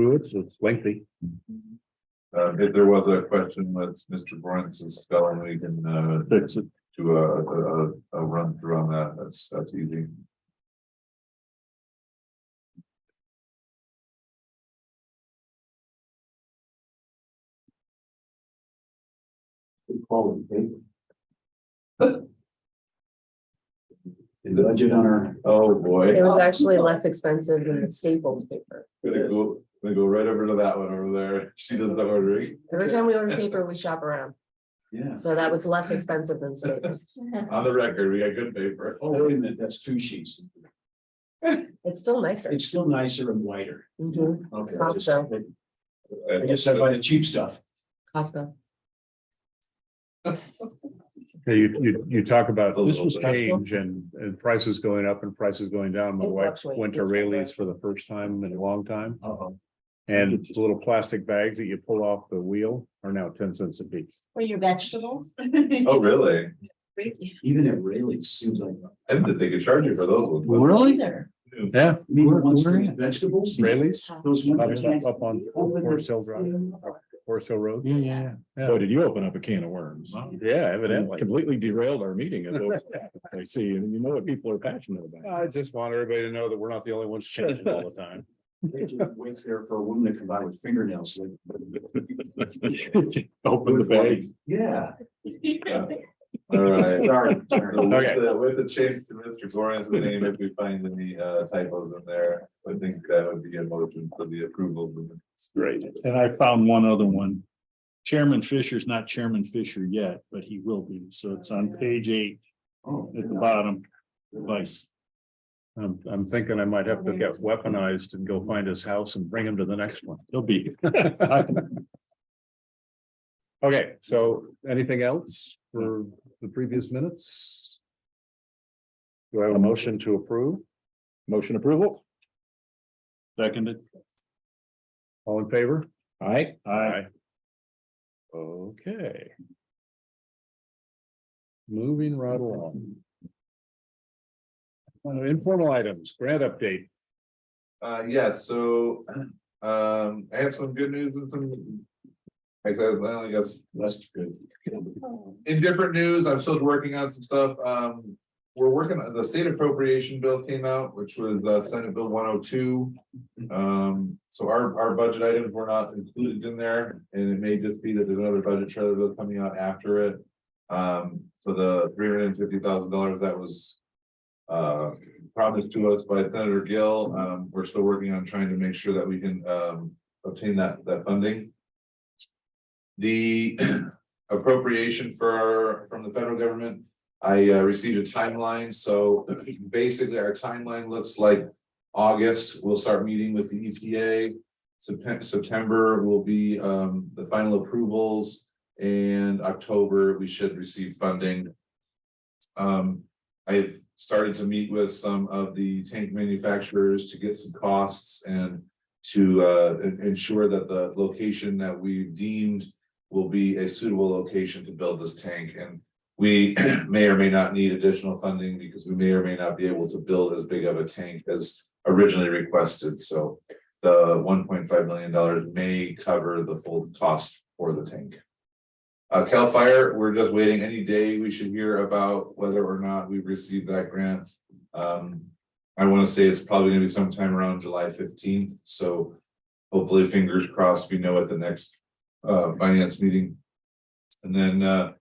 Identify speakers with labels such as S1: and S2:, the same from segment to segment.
S1: through it, so it's lengthy.
S2: Uh, if there was a question, let's, Mr. Boren's spelling, we can, uh,
S1: That's it.
S2: do a, a, a- a run through on that. That's, that's easy.
S3: The budget on our.
S2: Oh, boy.
S4: It was actually less expensive than the Staples paper.
S2: Gonna go, gonna go right over to that one over there. She does the ordering.
S4: Every time we order paper, we shop around,
S3: Yeah.
S4: so that was less expensive than Staples.
S2: On the record, we got good paper.
S3: Oh, wait a minute, that's two sheets.
S4: It's still nicer.
S3: It's still nicer and wider.
S4: Mhm.
S3: Okay.
S4: Costco.
S3: I guess I buy the cheap stuff.
S4: Costco.
S1: Yeah, You, you, you talk about
S2: A
S1: this
S2: little
S1: was
S2: bit.
S1: change and, and prices going up and prices going down. My
S4: It
S1: wife
S4: fluctuates.
S1: went to Rayleigh's for the first time in a long time.
S3: Uh-oh.
S1: And it's little plastic bags that you pull off the wheel are now ten cents a piece.
S5: For your vegetables?
S2: Oh, really?
S3: Even it really seems like.
S2: I didn't think they could charge you for those ones.
S5: Either.
S1: Yeah.
S3: I mean,
S1: Where-
S3: once
S1: where
S3: for
S1: at?
S3: vegetables.
S1: Rayleigh's
S3: Those
S1: up
S3: ones. that-
S1: up on Forest Hill Drive, Forest Hill Road.
S6: Yeah, yeah, yeah.
S1: Yeah.
S6: Boy, did you open up a can of worms?
S1: Yeah,
S6: Evidently
S1: evidently.
S6: completely derailed our meeting. as well. I see, and you know what people are passionate about.
S1: I just want everybody to know that we're not the only ones changing all the time.
S3: They just Wait there for a woman to come by with fingernails. like-
S6: Open the bag.
S3: Yeah.
S2: All right.
S3: Sorry,
S2: So
S3: sorry.
S2: With
S1: Okay.
S2: the, with the change to Mr. Goran's name, if we find any uh, typos in there, I think that would be a motion for the approval. of the minutes.
S6: Great. And I found one other one. Chairman Fisher's not Chairman Fisher yet, but he will be. So it's on page eight
S3: Oh,
S6: at the bottom. Vice.
S1: I'm, I'm thinking I might have to get weaponized and go find his house and bring him to the next one.
S6: He'll be.
S1: Okay, so anything else for the previous minutes? Do I have a motion to approve?
S6: Motion approval. Seconded.
S1: All in favor?
S6: Aye.
S1: Aye.
S6: Okay.
S1: Moving right along. Uh, Informal items, grant update.
S2: Uh, yeah, so um, I have some good news and some. I guess, well, I guess
S3: That's good.
S2: in different news, I'm still working on some stuff, um. We're working on, the state appropriation bill came out, which was uh Senate Bill one oh two. Um, so our, our budget items were not included in there, and it may just be that there's another budget trailer bill coming out after it. Um, so the three hundred and fifty thousand dollars that was. Uh, promised to us by Senator Gill, um, we're still working on trying to make sure that we can, um, obtain that, that funding. The appropriation for, from the federal government. I uh, received a timeline, so basically our timeline looks like August, we'll start meeting with the E EPA. September, September will be um, the final approvals and October, we should receive funding. Um, I've started to meet with some of the tank manufacturers to get some costs and to uh, en- ensure that the location that we've deemed will be a suitable location to build this tank and we may or may not need additional funding because we may or may not be able to build as big of a tank as originally requested, so the one point five million dollars may cover the full cost for the tank. Uh, Cal Fire, we're just waiting any day we should hear about whether or not we received that grant. Um, I want to say it's probably gonna be sometime around July fifteenth, so hopefully fingers crossed, we know at the next uh, finance meeting. And then, uh,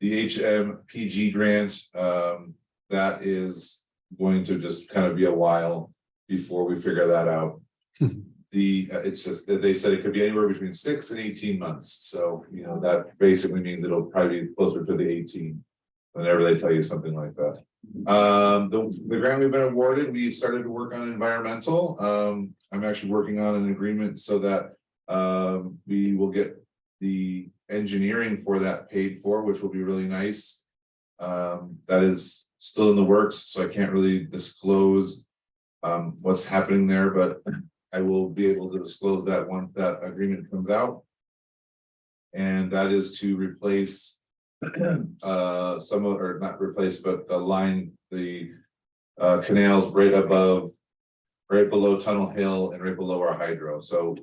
S2: the HMPG grant, um, that is going to just kind of be a while before we figure that out. The, uh, it's just that they said it could be anywhere between six and eighteen months, so, you know, that basically means it'll probably be closer to the eighteen. Whenever they tell you something like that. Um, the, the grant we've been awarded, we've started to work on environmental, um, I'm actually working on an agreement so that um, we will get the engineering for that paid for, which will be really nice. Um, that is still in the works, so I can't really disclose. Um, what's happening there, but I will be able to disclose that once that agreement comes out. And that is to replace. Uh, some of, or not replace, but align the. Uh, canals right above. Right below Tunnel Hill and right below our hydro, so